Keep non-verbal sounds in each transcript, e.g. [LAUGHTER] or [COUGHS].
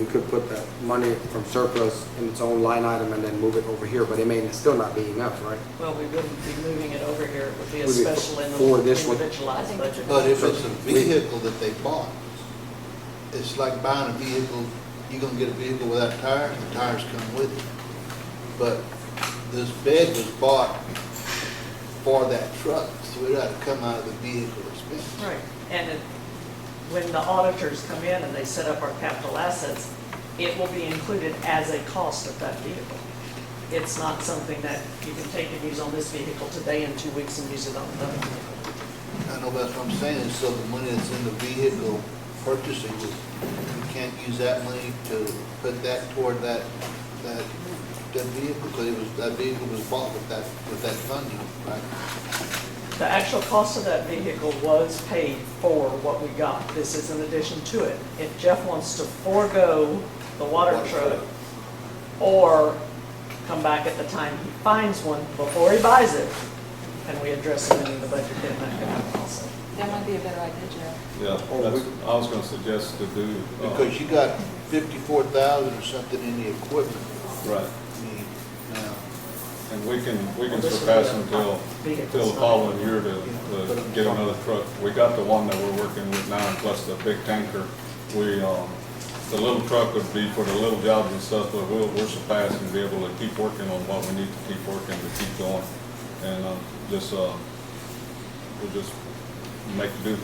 We could put the money from surplus in its own line item and then move it over here, but it may still not be enough, right? Well, we wouldn't be moving it over here, it would be a Would be special in for the this one. individualized budget. But if it's a vehicle that they bought, it's like buying a vehicle, you're gonna get a vehicle without tires, and the tires come with it. But this bed was bought for that truck, so it had to come out of the vehicle expense. Right, and it- when the auditors come in and they set up our capital assets, it will be included as a cost of that vehicle. It's not something that you can take and use on this vehicle today in two weeks and use it on another vehicle. I know that's what I'm saying, so the money that's in the vehicle purchasing, you can't use that money to put that toward that, that, that vehicle, because it was, that vehicle was bought with that, with that funding, right? The actual cost of that vehicle was paid for what we got. This is in addition to it. If Jeff wants to forego the water Water truck truck. or come back at the time he finds one before he buys it, and we address it in the budget, then that can happen also. That might be a better idea, Jeff. Yeah, Oh, that's, I was gonna suggest to do. uh, Because you got fifty-four thousand or something in the equipment. Right, I mean, uh, now, and we can, we can Well, this surpass will be a until, vehicle, until the so- following year to, to get another truck. We got the one that we're working with now, and plus the big tanker. We, um, the little truck would be for the little jobs and stuff, but we'll, we'll surpass and be able to keep working on what we need to keep working, to keep going. And, um, just, uh, we'll just make do.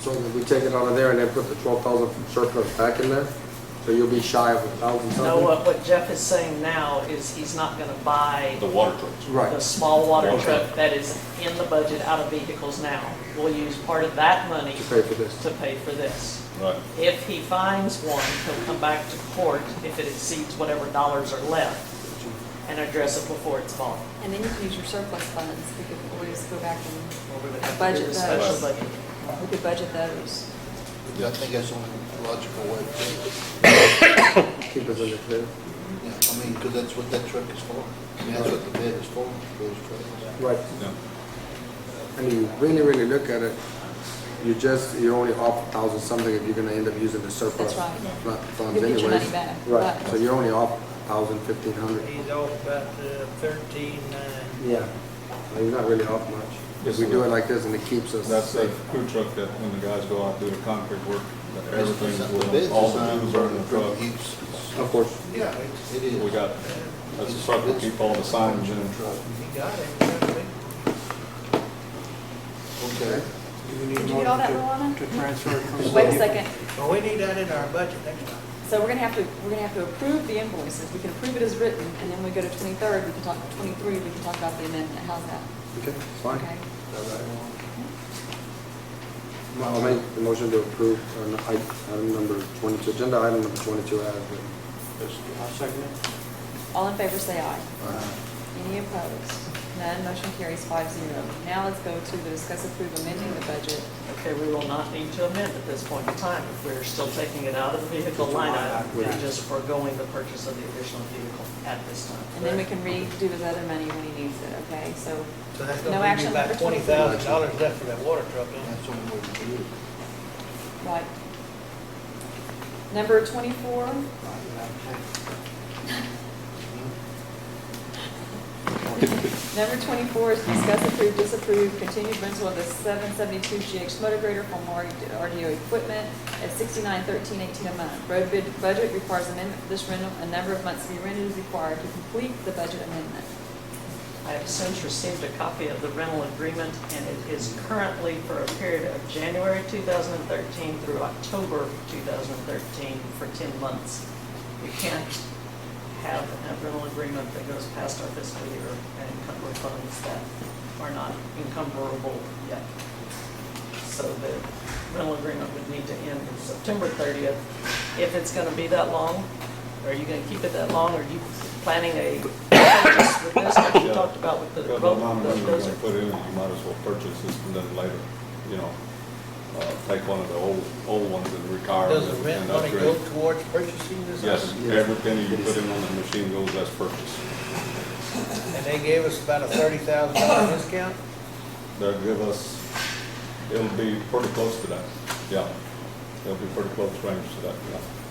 So if we take it out of there and then put the twelve thousand from surplus back in there, so you'll be shy of a thousand No, something? uh, what what Jeff is saying now is he's not going to buy The water trucks. the Right, small water Water truck truck. that is in the budget out of vehicles now. We'll use part of that money to pay for this. to pay for this. Right, If he finds one, he'll come back to court if it exceeds whatever dollars are left and address it before it's bought. And then you can use your surplus funds, we could always go back and, Or we would have to do Budget the special those. budget. we could budget those. I think that's the only logical way to do it. Keep us in the clear. Yeah, I mean, because that's what that truck is for. I mean, that's what the bed is for, those trucks. Right, yeah. and you really, really look at it, you just, you're only off a thousand something if you're gonna end up using the surplus. That's right. Not funds You'll anyways. get your money back, Right, right. so you're only off a thousand, fifteen hundred. He's off about uh, thirteen nine. Yeah. You're not really off much. If Yes, we sir. do it like this and it keeps us. That's the crew truck that when the guys go out do the concrete work, that everything's The bed's with all the designed tools are in the for truck. use. Of course. Yeah, It is. We got, that's the truck that keep all the signs in the truck. he got it, exactly. Okay. Did you get all that, Rolanda? to transfer it from. Wait a second, Well, we need that in our budget next time. so we're gonna have to, we're gonna have to approve the invoices, we can approve it as written, and then we go to twenty-third, we can talk, twenty-three, we can talk about the amendment, how's that? Okay, fine. Okay. I'll make the motion to approve on i- item number 22, agenda item number 22 as written. I'll second it. All in favor, say aye. Any opposed? None, motion carries five zero. Now let's go to the discuss approve amending the budget. Okay, we will not need to amend at this point in time if we're still taking it out of the vehicle line item and just foregoing the purchase of the additional vehicle at this time. And then we can redo his other money when he needs it, okay? So, So that's No gonna bring action you about for twenty 23. thousand dollars left for that water truck, huh? That's the only way to do it. right. Number twenty-four, [LAUGHS] number twenty-four is discuss approve, disapprove, continued rental of the seven seventy-two GX motor grader from RDO equipment at sixty-nine thirteen eighteen a month. Road bid budget requires amendment for this rental, a number of months to be rented is required to complete the budget amendment. I have since received a copy of the rental agreement, and it is currently for a period of January 2013 through October 2013 for 10 months. We can't have a rental agreement that goes past our fiscal year and encumber funds that are not encumberable yet. So the rental agreement would need to end on September 30th. If it's going to be that long, are you going to keep it that long? Are you planning a [COUGHS] purchase with this, like you talked about with the Got the amount of money we're gonna put in, it, you might as well purchase this and then later, you know, uh, take one of the old, old ones and retire Does the them rent and money go upgrade. towards purchasing this? Yes, item? every penny you put in on the machine goes as purchased. And they gave us about a thirty thousand dollar discount? They'll give us, it'll be pretty close to that, yeah. It'll be pretty close range to that, yeah.